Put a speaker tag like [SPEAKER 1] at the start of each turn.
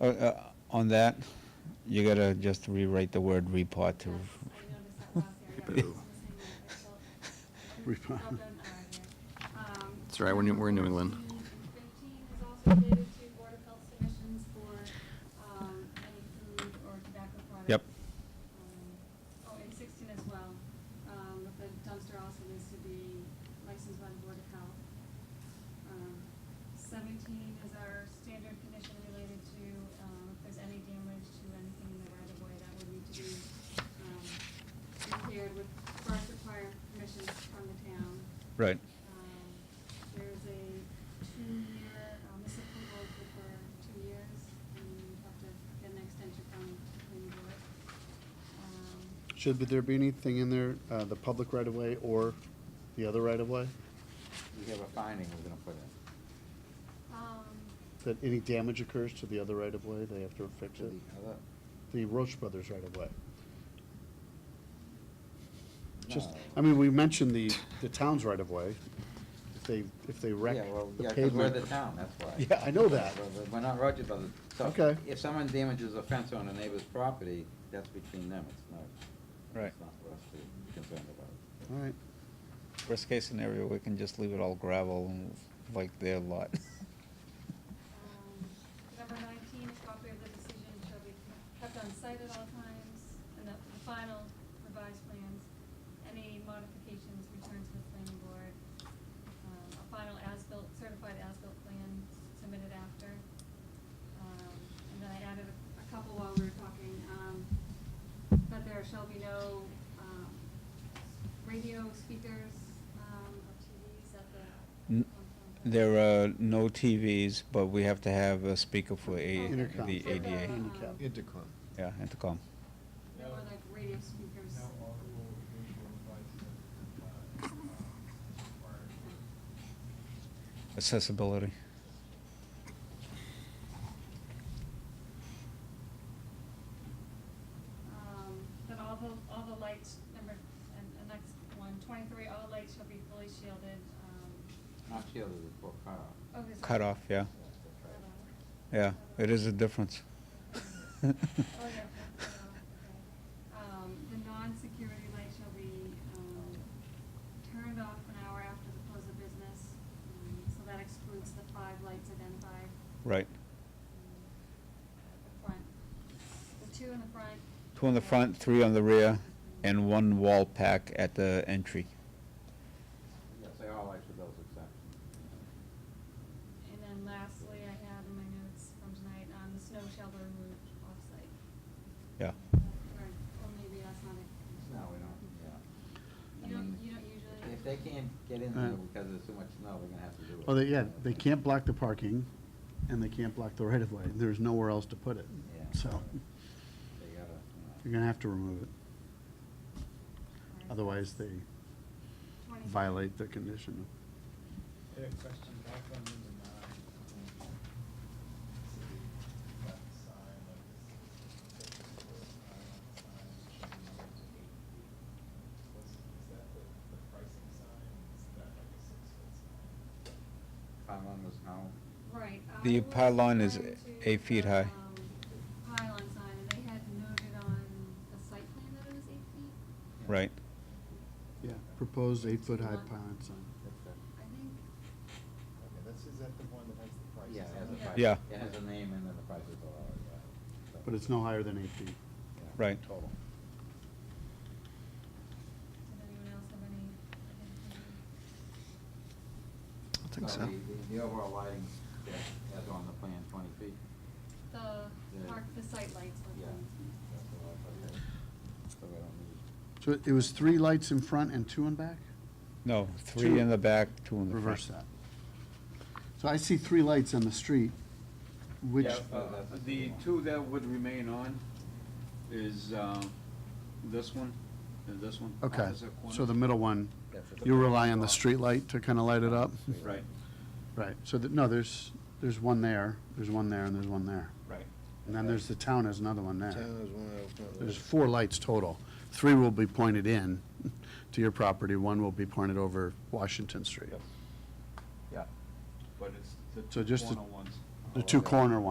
[SPEAKER 1] Uh, uh, On that, you gotta just rewrite the word repot to,
[SPEAKER 2] Repot.
[SPEAKER 3] uh,
[SPEAKER 4] It's all right, we're New- we're in New England.
[SPEAKER 3] Um, Fifteen is also related to Board of Health submissions for um, any food or tobacco products.
[SPEAKER 1] Yep.
[SPEAKER 3] Um, Oh, and sixteen as well, um, but the dumpster also needs to be licensed by the Board of Health. Um, Seventeen is our standard condition related to, um, if there's any damage to anything in the right of way, that would need to be, um, repaired with, first require permission from the town.
[SPEAKER 1] right.
[SPEAKER 3] Um, There's a two-year, um, this approval is good for two years, and you have to get an extension from the planning board. Um,
[SPEAKER 2] Should there be anything in there, uh, the public right-of-way or the other right-of-way?
[SPEAKER 5] We have a finding we're gonna put in.
[SPEAKER 3] um,
[SPEAKER 2] That any damage occurs to the other right-of-way, they have to fix
[SPEAKER 5] to
[SPEAKER 2] it?
[SPEAKER 5] the other-
[SPEAKER 2] The Roche Brothers right-of-way. Just,
[SPEAKER 5] No.
[SPEAKER 2] I mean, we mentioned the, the town's right-of-way. If they, if they wreck
[SPEAKER 5] Yeah, well,
[SPEAKER 2] the
[SPEAKER 5] yeah, 'cause we're
[SPEAKER 2] pavement.
[SPEAKER 5] the town, that's why.
[SPEAKER 2] Yeah, I know that.
[SPEAKER 5] We're- we're- We're not Roger Brothers. So
[SPEAKER 2] Okay.
[SPEAKER 5] If someone damages a fence on a neighbor's property, that's between them, it's not.
[SPEAKER 1] Right.
[SPEAKER 5] It's not for us to be concerned about.
[SPEAKER 2] All right.
[SPEAKER 1] Worst case scenario, we can just leave it all gravel like their lot.
[SPEAKER 3] um, Number nineteen, a copy of the decision shall be kept on site at all times, and that the final revised plans, any modifications returned to the planning board. Um, A final as-built, certified as-built plan submitted after. Um, And then I added a- a couple while we were talking, um, that there shall be no um, radio speakers um, or TVs at the.
[SPEAKER 1] N- There uh, are no TVs, but we have to have a speaker for a,
[SPEAKER 2] Intercom.
[SPEAKER 1] the
[SPEAKER 3] For the,
[SPEAKER 1] ADA.
[SPEAKER 3] um,
[SPEAKER 2] Handicap.
[SPEAKER 6] Intercom.
[SPEAKER 1] Yeah, intercom.
[SPEAKER 3] There were like radio speakers.
[SPEAKER 6] Now audible visual devices, uh, um, required
[SPEAKER 1] Accessibility.
[SPEAKER 3] Um, Then all the, all the lights, number, and the next one, twenty-three, all lights shall be fully shielded. um,
[SPEAKER 5] Not shielded is for car.
[SPEAKER 3] oh, is it-
[SPEAKER 1] Cut off, yeah.
[SPEAKER 3] Cut
[SPEAKER 1] Yeah, it is a difference.
[SPEAKER 3] off. Oh, yeah, cut off, okay. Um, The non-security light shall be um, turned off an hour after the close of business. um, So that excludes the five lights identified.
[SPEAKER 1] Right.
[SPEAKER 3] um, at The front, the two in the front.
[SPEAKER 1] Two on the front, three on the rear, and one wall pack at the entry.
[SPEAKER 5] Yes, they all like with those exceptions.
[SPEAKER 3] And then lastly, I had in my notes from tonight, um, the snow shall be removed off-site.
[SPEAKER 1] Yeah.
[SPEAKER 3] Or, or maybe that's not it.
[SPEAKER 5] No, we don't, yeah. I
[SPEAKER 3] You don't,
[SPEAKER 5] mean,
[SPEAKER 3] you don't usually.
[SPEAKER 5] If they can't get in
[SPEAKER 2] Uh.
[SPEAKER 5] there because there's too much snow, they're gonna have to do it.
[SPEAKER 2] Well, they, yeah, they can't block the parking and they can't block the right-of-way. There's nowhere else to put it.
[SPEAKER 5] Yeah.
[SPEAKER 2] So
[SPEAKER 5] They gotta, you
[SPEAKER 2] you're
[SPEAKER 5] know.
[SPEAKER 2] gonna have to remove it.
[SPEAKER 3] Alright.
[SPEAKER 2] Otherwise, they
[SPEAKER 3] 20.
[SPEAKER 2] violate the condition.
[SPEAKER 6] I had a question back on number nine. um, That sign, like this, this is where it's on the sign, it should be like eight feet. What's, is that the, the pricing sign? Is that like a six-foot sign?
[SPEAKER 5] Pylon was home.
[SPEAKER 3] Right. I
[SPEAKER 1] The
[SPEAKER 3] was
[SPEAKER 1] pylon is
[SPEAKER 3] referring to
[SPEAKER 1] eight feet
[SPEAKER 3] the,
[SPEAKER 1] high.
[SPEAKER 3] um, Pylon sign, and they had noted on the site plan that it was eight feet.
[SPEAKER 1] Right.
[SPEAKER 2] Yeah, proposed eight-foot-high pylon sign.
[SPEAKER 5] That's
[SPEAKER 3] I
[SPEAKER 5] it.
[SPEAKER 3] think,
[SPEAKER 6] Okay, that's, is that the one that has the prices
[SPEAKER 5] Yeah, it has
[SPEAKER 6] on
[SPEAKER 5] a
[SPEAKER 6] it?
[SPEAKER 5] price.
[SPEAKER 1] Yeah.
[SPEAKER 5] It has a name and then the price is all, yeah. So,
[SPEAKER 2] But it's no higher than eight feet.
[SPEAKER 5] yeah,
[SPEAKER 1] Right.
[SPEAKER 5] Total.
[SPEAKER 3] did anyone else have any?
[SPEAKER 5] I think so. the- The overall lighting, yeah, as on the plan, twenty feet.
[SPEAKER 3] The
[SPEAKER 5] Yeah.
[SPEAKER 3] park, the site lights. were
[SPEAKER 5] Yeah.
[SPEAKER 3] things.
[SPEAKER 5] That's the light, but they- So we don't need.
[SPEAKER 2] So it was three lights in front and two in back?
[SPEAKER 1] No, three in the back, two in the front.
[SPEAKER 2] Reverse that. So I see three lights on the street, which,
[SPEAKER 5] Yeah,
[SPEAKER 7] Uh, The two that would remain on is uh, this one and this one.
[SPEAKER 2] okay.
[SPEAKER 7] opposite corners.
[SPEAKER 2] So the middle one,
[SPEAKER 5] That's it.
[SPEAKER 2] you rely on the street light to kind of light it up?
[SPEAKER 7] Right,
[SPEAKER 2] Right, so that, no, there's, there's one there, there's one there, and there's one there.
[SPEAKER 7] right.
[SPEAKER 2] And then there's the town has another one there.
[SPEAKER 6] Town is one of those.
[SPEAKER 2] There's four lights total. Three will be pointed in to your property, one will be pointed over Washington Street.
[SPEAKER 7] But it's the
[SPEAKER 2] So
[SPEAKER 7] two
[SPEAKER 2] just the-
[SPEAKER 7] corner ones.
[SPEAKER 2] The two corner ones.